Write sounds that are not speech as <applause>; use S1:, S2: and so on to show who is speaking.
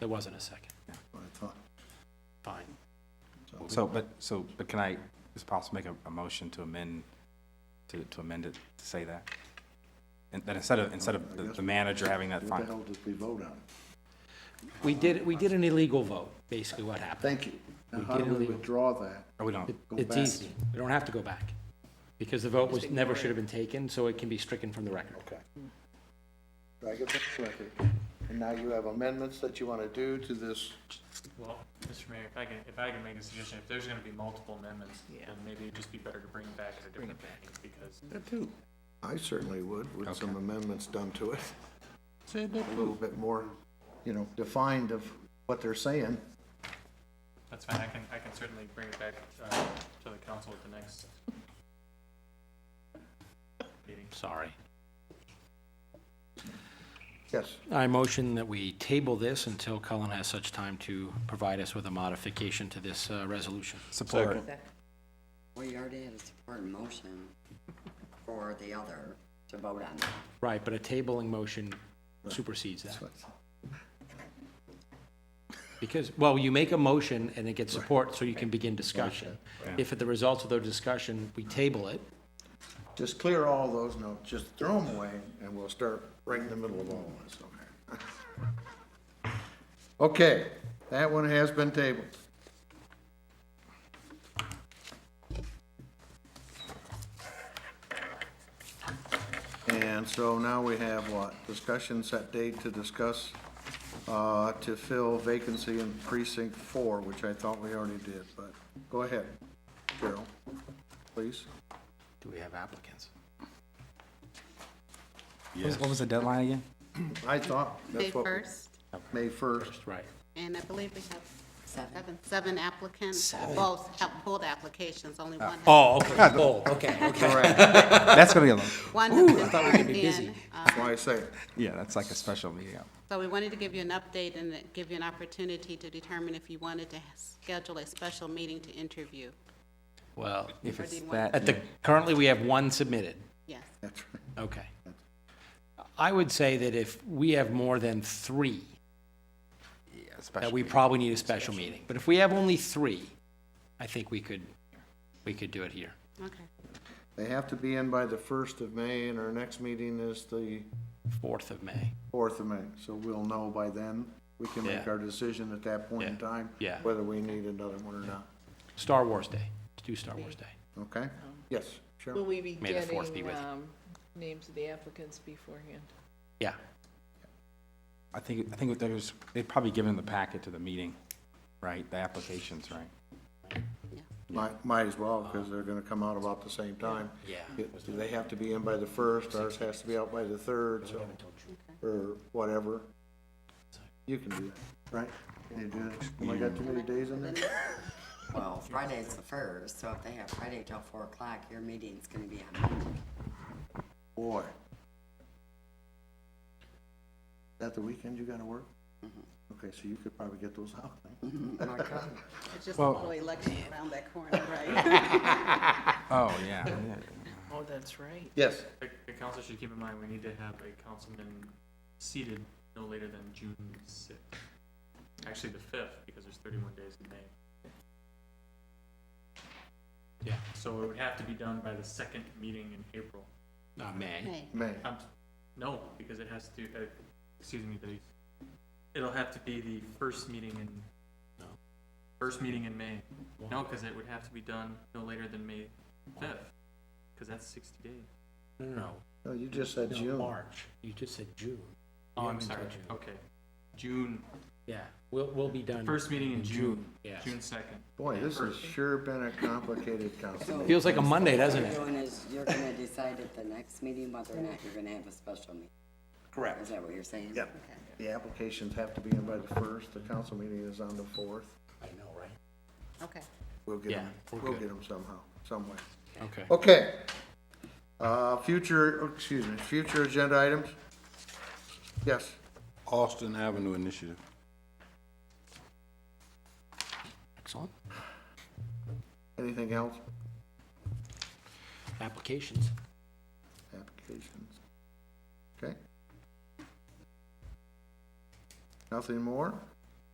S1: There wasn't a second.
S2: what I thought.
S1: Fine.
S3: So, but, so, but can I, is it possible to make a, a motion to amend, to, to amend it, to say that? And that instead of, instead of the- the manager having that
S2: What the
S3: final,
S2: hell did we vote on?
S1: We did, we did an illegal vote, basically what happened.
S2: Thank you. Now, how do we withdraw that?
S3: or we don't,
S1: It-
S2: Go
S1: It's
S2: back.
S1: easy. We don't have to go back. Because the vote was, never should have been taken, so it can be stricken from the record.
S2: Okay. Drag it back to record. And now you have amendments that you want to do to this.
S4: Well, Mr. Mayor, if I can, if I can make a suggestion, if there's gonna be multiple amendments, then maybe it'd just be better to bring it back at a different meeting, because
S2: I certainly would, with some
S3: Okay.
S2: amendments done to it. A little bit more, you know, defined of what they're saying.
S4: that's fine, I can, I can certainly bring it back, uh, to the council at the next meeting.
S1: Sorry.
S2: Yes,
S1: I motion that we table this until Cullen has such time to provide us with a modification to this uh, resolution.
S3: support,
S5: Well, you already had a support motion for the other to vote on.
S1: Right, but a tabling motion supersedes that. Because, well, you make a motion and it gets support, so you can begin discussion. If at the results of the discussion, we table it,
S2: just clear all those notes, just throw them away, and we'll start right in the middle of all of this, okay? <laughs> Okay, that one has been tabled. And so now we have what? Discussion set date to discuss, uh, to fill vacancy in precinct four, which I thought we already did, but go ahead, Carol, please.
S1: do we have applicants?
S3: What was- what was the deadline again?
S2: I thought,
S6: May
S2: that's what,
S6: 1st,
S2: May 1st.
S1: Right.
S6: and I believe we have
S5: Seven.
S6: seven, seven applicants, both have pulled applications, only one. has-
S1: Oh, okay, bold, okay, okay.
S2: Correct,
S3: That's gonna be a, long-
S6: One has been
S1: oh. thought we could
S6: turned
S1: be
S6: in.
S1: busy.
S6: uh,
S2: that's why I say it.
S3: yeah, that's like a special meeting.
S6: So we wanted to give you an update and give you an opportunity to determine if you wanted to schedule a special meeting to interview.
S1: Well,
S3: If
S6: Or
S3: it's
S6: do you want-
S3: that,
S1: at the, currently, we have one submitted.
S6: Yes.
S2: That's right.
S1: Okay. I would say that if we have more than three,
S3: yeah,
S1: that
S3: special
S1: we
S3: meeting.
S1: probably need a special meeting. But if we have only three, I think we could, we could do it here.
S6: Okay.
S2: They have to be in by the 1st of May, and our next meeting is the
S1: 4th of May.
S2: 4th of May. So we'll know by then. We can make
S1: Yeah.
S2: our decision at that point in
S1: Yeah.
S2: time.
S1: Yeah.
S2: Whether we need another one or not.
S1: Star Wars Day. Let's do Star Wars Day.
S2: Okay? Yes,
S7: Will
S2: sure.
S7: we be
S1: May the fourth be
S7: getting,
S1: with you.
S7: um, names of the applicants beforehand?
S1: Yeah.
S3: I think, I think there's, they'd probably given the packet to the meeting, right, the applications, right?
S2: Might, might as well, because they're gonna come out about the same time.
S1: Yeah.
S2: It- They have to be in by the 1st, ours has to be out by the 3rd, so, or whatever. You can do that, right? Can you do that? Am I got too many days in there?
S5: Well, Friday's the first, so if they have Friday till four o'clock, your meeting's gonna be on Monday.
S2: Boy. That the weekend you gotta work? Okay, so you could probably get those out.
S6: It's just a
S3: Well-
S6: little election around that corner, right? <laughs>
S3: Oh, yeah, yeah.
S7: Oh, that's right.
S2: Yes.
S4: The, the council should keep in mind, we need to have a councilman seated no later than June sixth. Actually, the fifth, because there's thirty-one days in May.
S1: Yeah.
S4: So it would have to be done by the second meeting in April.
S1: Not May.
S6: May.
S2: May.
S4: Um, no, because it has to, uh, excuse me, the, it'll have to be the first meeting in,
S1: No.
S4: first meeting in May. No, because it would have to be done no later than May fifth, because that's sixty days.
S1: No, no, no.
S2: No, you just said
S1: No,
S2: June.
S1: March. You just said June.
S4: Oh,
S1: We
S4: I'm
S1: haven't said
S4: sorry,
S1: June.
S4: okay. June,
S1: Yeah, we'll, we'll be done.
S4: first meeting in June,
S1: Yes.
S4: June second.
S2: Boy, this has sure been a complicated council meeting.
S1: Feels like a Monday, doesn't
S5: What
S1: it?
S5: you're doing is, you're gonna decide at the next meeting whether or not you're gonna have a special meeting. Is that what you're saying?
S2: Yep. The applications have to be in by the first, the council meeting is on the fourth.
S1: I know, right?
S6: Okay.
S2: We'll get them,
S1: Yeah, we're
S2: we'll
S1: good.
S2: get them somehow, some way.
S1: Okay.
S2: Okay. Uh, future, excuse me, future agenda items? Yes.
S8: Austin Avenue Initiative.
S1: Excellent.
S2: Anything else?
S1: Applications.
S2: applications. Okay? Nothing more?